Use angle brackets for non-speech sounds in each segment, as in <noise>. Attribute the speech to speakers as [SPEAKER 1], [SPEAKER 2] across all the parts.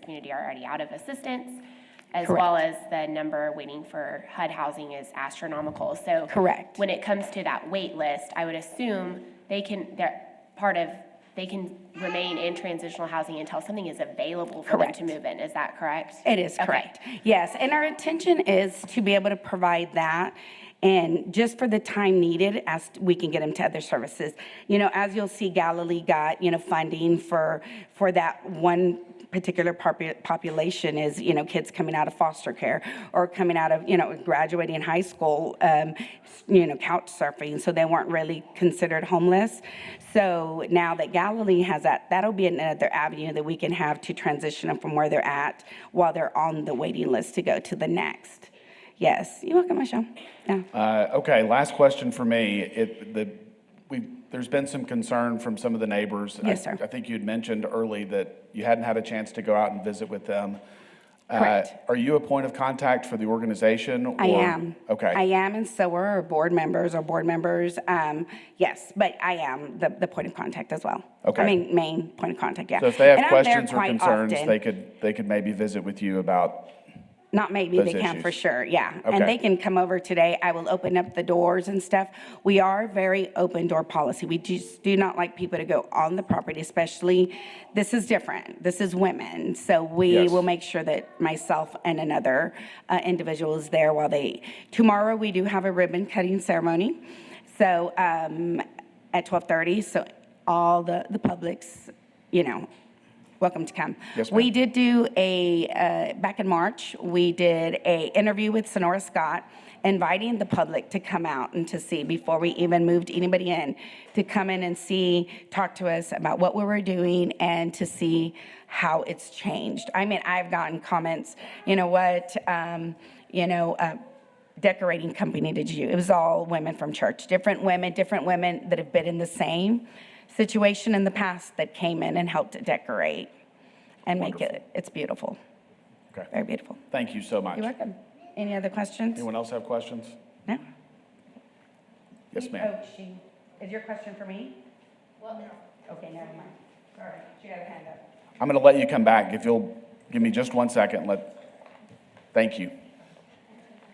[SPEAKER 1] community are already out of assistance, as well as the number waiting for HUD housing is astronomical. So
[SPEAKER 2] Correct.
[SPEAKER 1] when it comes to that wait list, I would assume they can, they're part of, they can remain in transitional housing until something is available for them
[SPEAKER 2] Correct.
[SPEAKER 1] to move in. Is that correct?
[SPEAKER 2] It is
[SPEAKER 1] Okay.
[SPEAKER 2] correct. Yes, and our intention is to be able to provide that and just for the time needed as we can get them to other services. You know, as you'll see, Galilee got, you know, funding for, for that one particular popu- population is, you know, kids coming out of foster care or coming out of, you know, graduating high school, um, you know, couch surfing, so they weren't really considered homeless. So now that Galilee has that, that'll be another avenue that we can have to transition them from where they're at while they're on the waiting list to go to the next. Yes, you're welcome, Michelle. Yeah.
[SPEAKER 3] Uh, Okay, last question for me. It, the, we, there's been some concern from some of the neighbors. I-
[SPEAKER 2] Yes, sir.
[SPEAKER 3] I think you'd mentioned early that you hadn't had a chance to go out and visit with them. Uh,
[SPEAKER 2] Correct.
[SPEAKER 3] Are you a point of contact for the organization?
[SPEAKER 2] I
[SPEAKER 3] or-
[SPEAKER 2] am.
[SPEAKER 3] Okay.
[SPEAKER 2] I am, and so are our board members or board members. Um, yes, but I am the, the point of contact as well.
[SPEAKER 3] Okay.
[SPEAKER 2] I mean, main point of contact, yeah.
[SPEAKER 3] So if they have
[SPEAKER 2] And I'm there
[SPEAKER 3] questions or
[SPEAKER 2] quite
[SPEAKER 3] concerns,
[SPEAKER 2] often.
[SPEAKER 3] they could, they could maybe visit with you about,
[SPEAKER 2] Not maybe,
[SPEAKER 3] those
[SPEAKER 2] they can for
[SPEAKER 3] issues.
[SPEAKER 2] sure, yeah. And
[SPEAKER 3] Okay.
[SPEAKER 2] they can come over today, I will open up the doors and stuff. We are very open door policy, we just do not like people to go on the property, especially, this is different, this is women. So we
[SPEAKER 3] Yes.
[SPEAKER 2] will make sure that myself and another uh, individual is there while they, tomorrow, we do have a ribbon cutting ceremony, so, um, at 12:30, so all the, the publics, you know, welcome to come.
[SPEAKER 3] Yes,
[SPEAKER 2] We
[SPEAKER 3] ma'am.
[SPEAKER 2] did do a, uh, back in March, we did a interview with Sonora Scott, inviting the public to come out and to see, before we even moved anybody in, to come in and see, talk to us about what we were doing, and to see how it's changed. I mean, I've gotten comments, you know what, um, you know, uh, decorating company did you? It was all women from church, different women, different women that have been in the same situation in the past that came in and helped to decorate and make it, it's beautiful, very
[SPEAKER 3] okay.
[SPEAKER 2] beautiful.
[SPEAKER 3] Thank you so much.
[SPEAKER 2] You're welcome. Any other questions?
[SPEAKER 3] Anyone else have questions?
[SPEAKER 2] No?
[SPEAKER 3] Yes, ma'am.
[SPEAKER 2] Oh, she, is your question for me? Well, no. Okay, never mind. All right, she had her hand up.
[SPEAKER 3] I'm going to let you come back if you'll give me just one second. Let, thank you.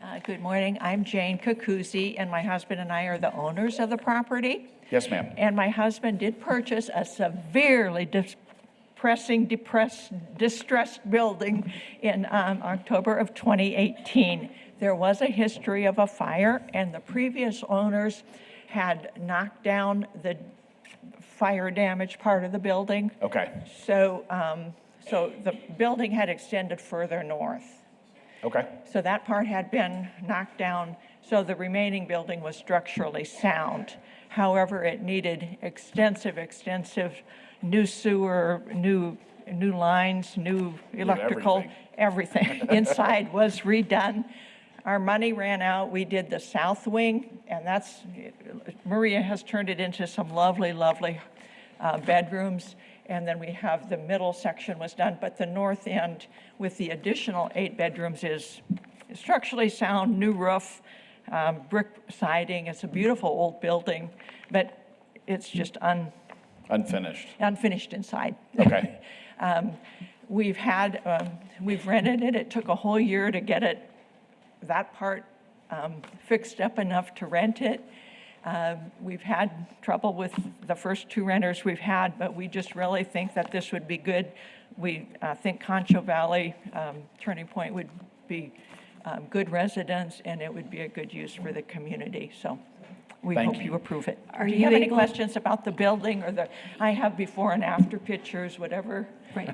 [SPEAKER 4] Uh, Good morning. I'm Jane Kukuzi, and my husband and I are the owners of the property.
[SPEAKER 3] Yes, ma'am.
[SPEAKER 4] And my husband did purchase a severely depressing, depressed, distressed building in um, October of 2018. There was a history of a fire, and the previous owners had knocked down the fire damaged part of the building.
[SPEAKER 3] Okay,
[SPEAKER 4] So, um, so the building had extended further north.
[SPEAKER 3] okay,
[SPEAKER 4] So that part had been knocked down, so the remaining building was structurally sound. However, it needed extensive, extensive new sewer, new, new lines, new electrical, everything. <laughs> Inside was redone. Our money ran out. We did the south wing, and that's, Maria has turned it into some lovely, lovely uh, bedrooms, and then we have the middle section was done, but the north end with the additional eight bedrooms is structurally sound, new roof, um, brick siding, it's a beautiful old building, but it's just un,
[SPEAKER 3] unfinished.
[SPEAKER 4] unfinished inside.
[SPEAKER 3] Okay.
[SPEAKER 4] Um, We've had, um, we've rented it, it took a whole year to get it, that part um, fixed up enough to rent it. Um, We've had trouble with the first two renters we've had, but we just really think that this would be good. We uh, think Concho Valley um, Turning Point would be um, good residents, and it would be a good use for the community, so we
[SPEAKER 3] Thank
[SPEAKER 4] hope
[SPEAKER 3] you.
[SPEAKER 4] you approve it.
[SPEAKER 5] Are
[SPEAKER 4] Do you
[SPEAKER 5] you
[SPEAKER 4] have any
[SPEAKER 5] able-
[SPEAKER 4] questions about the building or the, I have before and after pictures, whatever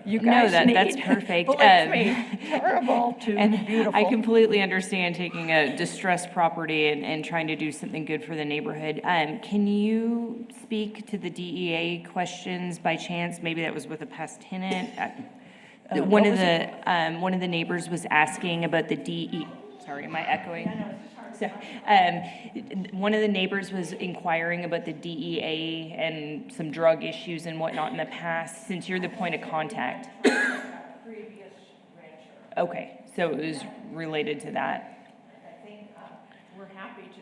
[SPEAKER 4] you
[SPEAKER 5] No,
[SPEAKER 4] guys
[SPEAKER 5] that-
[SPEAKER 4] need.
[SPEAKER 5] that's perfect.
[SPEAKER 4] Believe
[SPEAKER 5] Um,
[SPEAKER 4] me,
[SPEAKER 5] <laughs>
[SPEAKER 4] terrible to
[SPEAKER 5] And
[SPEAKER 4] beautiful.
[SPEAKER 5] I completely understand taking a distressed property and, and trying to do something good for the neighborhood. Um, can you speak to the DEA questions by chance? Maybe that was with a past tenant? Uh,
[SPEAKER 4] what
[SPEAKER 5] One of
[SPEAKER 4] was
[SPEAKER 5] the, um, one of the neighbors was asking about the DE, sorry, am I echoing? So, um, one of the neighbors was inquiring about the DEA and some drug issues and whatnot in the past, since you're the point of
[SPEAKER 4] <coughs>
[SPEAKER 5] contact.
[SPEAKER 4] rancher.
[SPEAKER 5] Okay, so it was related to that.
[SPEAKER 4] I think uh, we're happy to